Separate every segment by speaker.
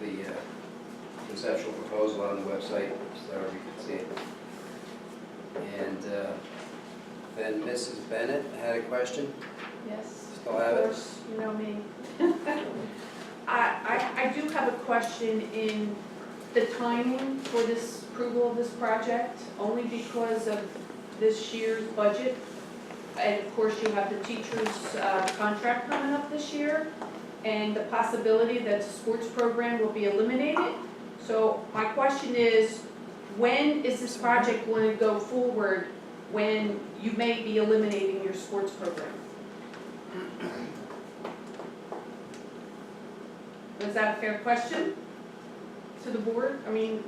Speaker 1: uh, conceptual proposal on the website, so you can see it. And uh, then Mrs. Bennett had a question,
Speaker 2: Yes.
Speaker 1: Still have it?
Speaker 2: Of course, you know me. I, I, I do have a question in the timing for this approval of this project, only because of this year's budget. And of course, you have the teacher's uh, contract coming up this year, and the possibility that the sports program will be eliminated. So my question is, when is this project going to go forward when you may be eliminating your sports program? Was that a fair question to the board? I mean,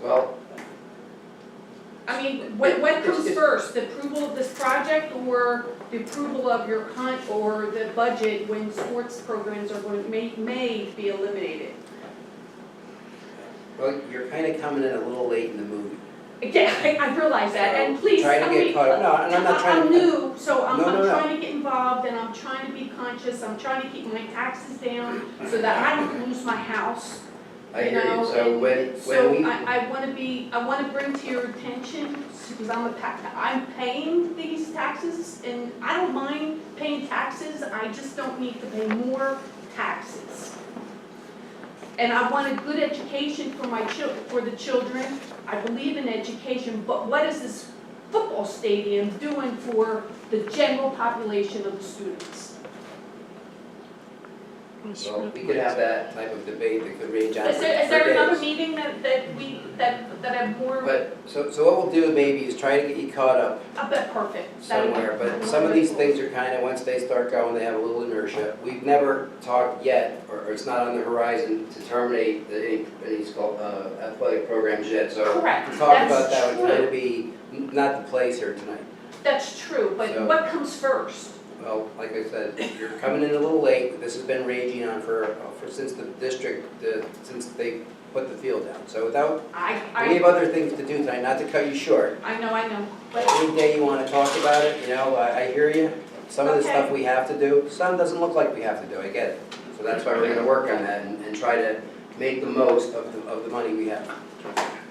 Speaker 1: well,
Speaker 2: I mean, what, what
Speaker 1: It's-
Speaker 2: comes
Speaker 1: it's-
Speaker 2: first, the approval of this project or the approval of your con, or the budget when sports programs are, going- may, may be eliminated?
Speaker 1: well, you're kind of coming in a little late in the movie.
Speaker 2: Again, I, I realize that, and
Speaker 1: So,
Speaker 2: please,
Speaker 1: try to
Speaker 2: I
Speaker 1: get
Speaker 2: mean,
Speaker 1: caught up. No, and I'm not trying to-
Speaker 2: I'm new, so I'm,
Speaker 1: No, no,
Speaker 2: I'm
Speaker 1: no.
Speaker 2: trying to get involved, and I'm trying to be conscious, I'm trying to keep my taxes down, so that I don't lose my house,
Speaker 1: I
Speaker 2: you
Speaker 1: hear you,
Speaker 2: know,
Speaker 1: so
Speaker 2: and
Speaker 1: when, when we.
Speaker 2: So I, I wanna be, I wanna bring to your attention, because I'm a tax, I'm paying these taxes, and I don't mind paying taxes, I just don't need to pay more taxes. And I want a good education for my chil, for the children, I believe in education, but what is this football stadium doing for the general population of the students?
Speaker 1: Well, we could have that type of debate that could range on for
Speaker 2: Is
Speaker 1: for
Speaker 2: there, is there another
Speaker 1: days.
Speaker 2: meeting that, that we, that, that have more
Speaker 1: But, so, so what we'll do maybe is try to get you caught up
Speaker 2: I bet perfect. That would be
Speaker 1: somewhere, but some of these
Speaker 2: wonderful.
Speaker 1: things are kind of, once they start going, they have a little inertia. We've never talked yet, or, or it's not on the horizon to terminate the, any, any scho- uh, athletic programs yet, so
Speaker 2: Correct,
Speaker 1: to talk about
Speaker 2: that's
Speaker 1: that would kind
Speaker 2: true,
Speaker 1: of be n- not the place here tonight.
Speaker 2: that's true,
Speaker 1: So-
Speaker 2: but what comes first?
Speaker 1: Well, like I said, you're coming in a little late, this has been raging on for, uh, for, since the district, uh, since they put the field down. So without
Speaker 2: I,
Speaker 1: We have
Speaker 2: I,
Speaker 1: other things to do tonight, not to cut you short.
Speaker 2: I know, I know, but,
Speaker 1: Any day you wanna talk about it, you know, I, I hear you. Some of the stuff we have to do, some doesn't look like we have to do, I get it. So that's why we're gonna work on that and, and try to make the most of the, of the money we have.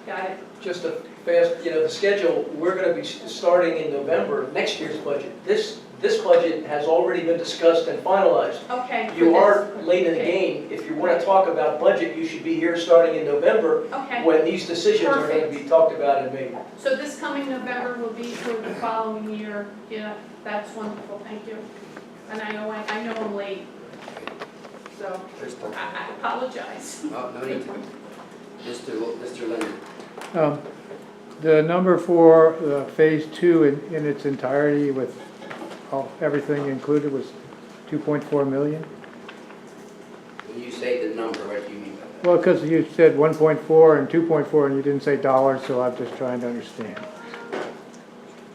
Speaker 2: got it,
Speaker 3: Just a fast, you know, the schedule, we're gonna be s- starting in November, next year's budget. This, this budget has already been discussed and finalized.
Speaker 2: okay. for
Speaker 3: You
Speaker 2: this.
Speaker 3: are late in the
Speaker 2: Okay.
Speaker 3: game. If you wanna talk about budget, you should be here starting in November
Speaker 2: Okay,
Speaker 3: when these decisions are gonna be talked about and made.
Speaker 2: so this coming November will be for the following year, yeah, that's wonderful, thank you. And I know, I, I know I'm late, so
Speaker 1: There's
Speaker 2: I,
Speaker 1: stuff.
Speaker 2: I apologize.
Speaker 1: No, no need to. Mr. L- Mr. Linden,
Speaker 4: Um, The number for uh, Phase Two in in its entirety with all- everything included was 2.4 million?
Speaker 1: when you say the number, what do you mean by
Speaker 4: Well, because you said 1.4 and 2.4, and you didn't say dollars, so I'm just trying to understand.
Speaker 1: that?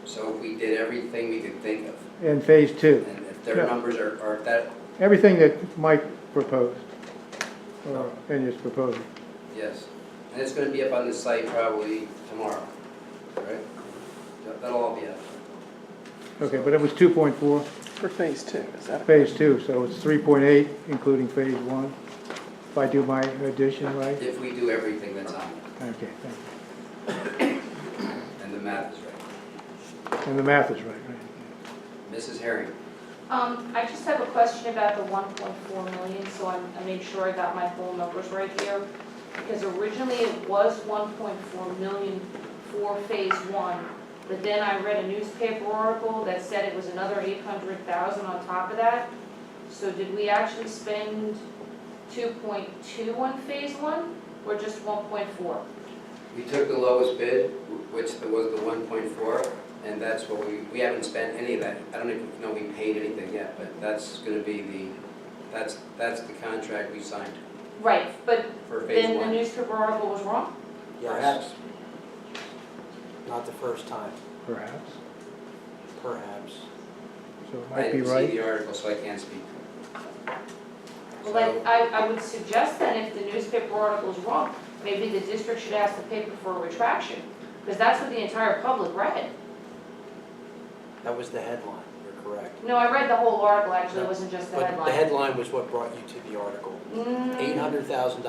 Speaker 1: So we did everything we could think of,
Speaker 4: And Phase Two,
Speaker 1: and if their
Speaker 4: Yeah.
Speaker 1: numbers are, are that,
Speaker 4: everything that Mike proposed, or in his proposal.
Speaker 1: Yes, and it's gonna be up on the site probably tomorrow, right? That- That'll all be up.
Speaker 4: Okay, but it was 2.4,
Speaker 5: For phase two, is that?
Speaker 4: Phase Two, so it's 3.8 including Phase One, if I do my addition right?
Speaker 1: If we do everything that's on it,
Speaker 4: Okay, thank you.
Speaker 1: and the math is right.
Speaker 4: And the math is right, right?
Speaker 1: Mrs. Herring,
Speaker 6: Um, I just have a question about the one point four million, so I'm, I made sure I got my whole numbers right here. Because originally it was one point four million for phase one, but then I read a newspaper article that said it was another eight hundred thousand on top of that. So did we actually spend two point two on phase one, or just one point four?
Speaker 1: we took the lowest bid, wh- which was the one point four, and that's what we, we haven't spent any of that. I don't even know we paid anything yet, but that's gonna be the, that's, that's the contract we signed
Speaker 6: Right, but
Speaker 1: for phase
Speaker 6: then the
Speaker 1: one.
Speaker 6: newspaper article was wrong?
Speaker 5: Perhaps. Not the first time,
Speaker 4: Perhaps,
Speaker 5: perhaps.
Speaker 4: so it
Speaker 1: I
Speaker 4: might be
Speaker 1: didn't
Speaker 4: right.
Speaker 1: see the article, so I can't speak. So-
Speaker 6: Well, then, I, I would suggest then if the newspaper article is wrong, maybe the district should ask the paper for a retraction, because that's what the entire public read.
Speaker 5: That was the headline, you're correct.
Speaker 6: No, I read the whole article, actually, it wasn't just the
Speaker 5: But the
Speaker 6: headline.
Speaker 5: headline was what brought you to the article.
Speaker 6: Mm.
Speaker 5: Eight hundred thousand dollars